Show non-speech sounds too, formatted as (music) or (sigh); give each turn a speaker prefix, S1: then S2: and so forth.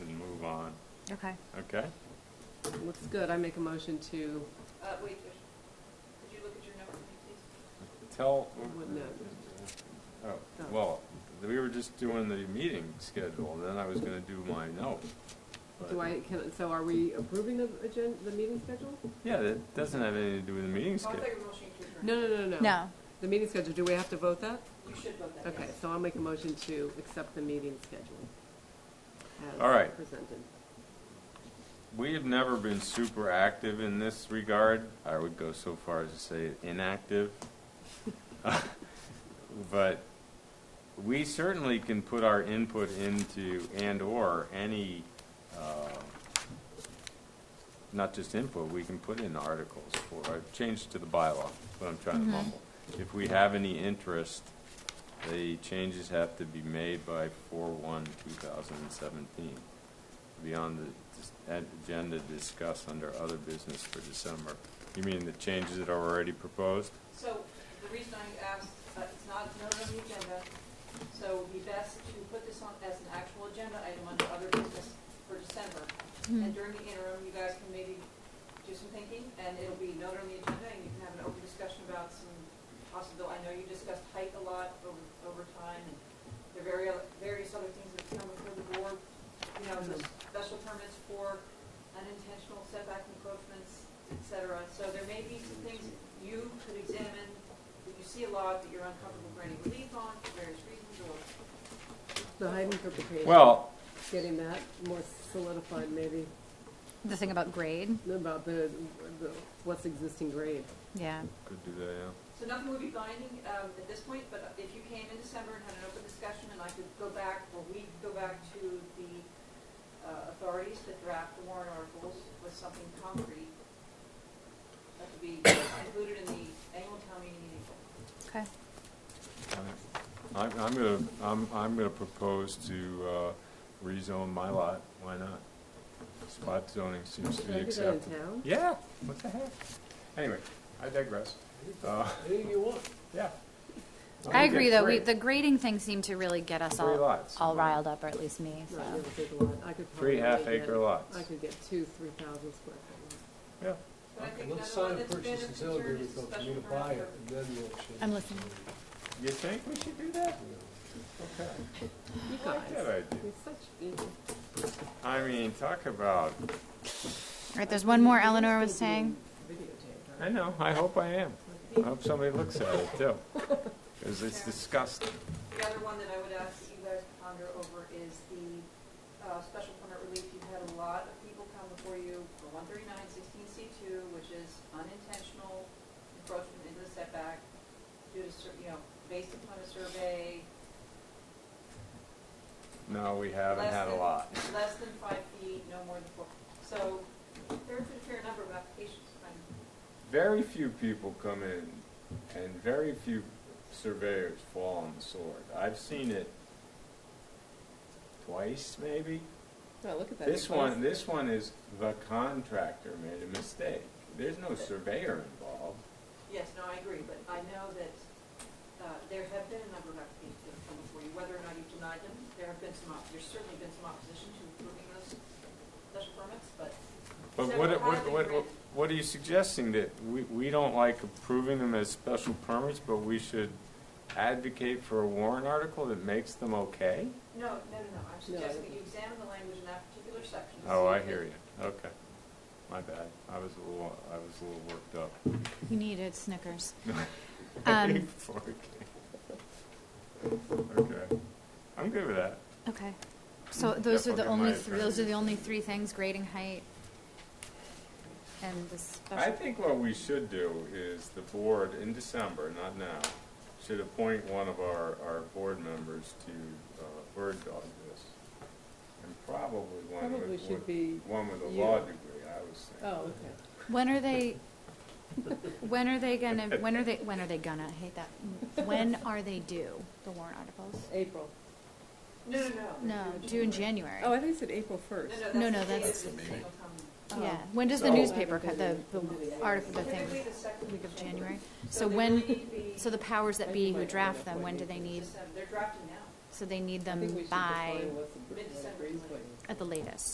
S1: Okay.
S2: Okay.
S3: Looks good. I make a motion to,
S4: Uh, wait, there's, could you look at your note for me, please?
S2: Tell.
S3: What note?
S2: Oh,
S3: No.
S2: well, we were just doing the meeting schedule, and then I was gonna do my note. but-
S3: do I, can, so are we approving the agenda, the meeting schedule?
S2: Yeah, that doesn't have anything to do with the meeting
S4: I'll
S2: schedule.
S4: take a motion to
S3: No,
S4: adjourn.
S3: no, no, no.
S1: No.
S3: The meeting schedule, do we have to vote that?
S4: You should vote that.
S3: Okay, so I'll make a motion to accept the meeting schedule. as
S2: All right.
S3: Presented.
S2: We have never been super active in this regard. I would go so far as to say inactive. (laughs) But we certainly can put our input into and/or any, uh, not just input, we can put in articles for, I've changed to the bylaw, what I'm trying to mumble. If we have any interest, the changes have to be made by 4/1/2017 be on the dis- ad- agenda to discuss under other business for December. You mean the changes that are already proposed?
S4: So the reason I asked, uh, it's not noted on the agenda, so it would be best to put this on as an actual agenda item under other business for December.
S1: Mm-hmm. hmm.
S4: And during the interim, you guys can maybe do some thinking, and it'll be noted on the agenda, and you can have an open discussion about some possible, I know you discussed height a lot over, over time, and there are various, various other things that come before the board, you know, the special permits for unintentional setback encroachments, et cetera. So there may be some things you could examine, that you see a lot, that you're uncomfortable granting relief on for various reasons, or
S3: The height interpretation.
S2: Well,
S3: Getting that more solidified maybe
S1: The thing about grade,
S3: about the, the, what's existing grade.
S1: yeah.
S2: could do that, yeah.
S4: So nothing would be binding um, at this point, but if you came in December and had an open discussion, and I could go back, or we could go back to the uh, authorities to draft the warrant articles with something concrete, that could be included in the annual town meeting in April.
S1: Okay.
S2: I'm, I'm gonna, I'm, I'm gonna propose to uh, rezone my lot, why not? Spot zoning seems to
S3: Should
S2: be
S3: I do that in
S2: accepted.
S3: town?
S2: Yeah, what the heck? Anyway, I digress. Uh, (laughs)
S5: Anything you want.
S2: Yeah.
S1: I agree, though, we,
S2: Great.
S1: the grading thing seemed to really get us
S2: Three
S1: all,
S2: lots.
S1: all riled up, or at least me,
S3: No, I
S1: so.
S3: never did one. I could
S2: Three
S3: probably
S2: half-acre
S3: get-
S2: lots.
S3: I could get two, three thousand square foot ones.
S2: Yeah.
S4: But I think
S5: Let's
S4: another one
S5: sign a
S4: that's been
S5: purchase
S4: of
S5: and sale
S4: concern
S5: agreement,
S4: is the
S5: so for
S4: special
S5: you to buy
S4: permit
S5: it,
S4: for-
S5: and then we'll change.
S1: I'm listening.
S2: You think we should do that? Okay.
S3: You
S2: I like that
S3: guys,
S2: idea.
S3: you're such, you-
S2: I mean, talk about,
S1: All right, there's one more Eleanor was saying.
S2: I
S3: Oh,
S2: know, I hope I am. I hope somebody looks at it too, because it's disgusting.
S4: The other one that I would ask that you guys ponder over is the uh, special permit relief. You've had a lot of people come before you for 139, 16C2, which is unintentional encroachment into the setback due to, cer- you know, based upon a survey.
S2: No, we haven't
S4: less
S2: had a
S4: than-
S2: lot.
S4: Less than five feet, no more than four. So there's a fair number of applications. I'm-
S2: Very few people come in, and very few surveyors fall on the sword. I've seen it twice, maybe.
S3: Oh, look at that.
S2: This
S3: Nicholas.
S2: one, this one is the contractor made a mistake. There's no surveyor involved.
S4: Yes, no, I agree, but I know that uh, there have been a number of applications that have come before you, whether or not you've denied them, there have been some, op- there's certainly been some opposition to approving those special permits, but
S2: But
S4: So
S2: what,
S4: how
S2: what,
S4: do we
S2: what,
S4: grant-
S2: what are you suggesting, that we, we don't like approving them as special permits, but we should advocate for a warrant article that makes them okay?
S4: no, no, no, no, I'm suggesting that you examine the language in that particular section. to
S2: Oh,
S4: see
S2: I
S4: if
S2: hear
S4: it-
S2: you, okay. My bad, I was a little, I was a little worked up. (laughs)
S1: You needed Snickers. Um.
S2: Before I came. Okay, I'm good with that.
S1: Okay. So
S2: Mm.
S1: those are
S2: That's
S1: the
S2: what my
S1: only, th-
S2: attorney
S1: those are the
S2: said.
S1: only three things, grading height and the
S2: I
S1: special.
S2: think what we should do is the board in December, not now, should appoint one of our, our board members to uh, bird dog this. And probably one
S3: Probably
S2: with,
S3: should be
S2: with- one with a
S3: you.
S2: law degree, I was
S3: Oh,
S2: thinking.
S3: okay.
S1: When are they, when are they gonna, when are they, when are they gonna, I hate that. When are they due, the warrant articles?
S3: April.
S4: No, no, no.
S1: No, due in January.
S3: Oh, I think it said April first. Oh.
S1: No,
S4: No,
S1: no,
S4: no,
S1: that's-
S4: that's the date of the single comment.
S1: Yeah, when does the
S2: So-
S1: newspaper cut, the, the article, the thing,
S4: Typically the second
S1: week of January?
S4: So
S1: So
S4: they
S1: when,
S4: really need to be-
S1: so the powers that be who draft them, when do they need,
S4: December. They're drafting now.
S1: so they need them by,
S4: Mid-December.
S1: at the latest?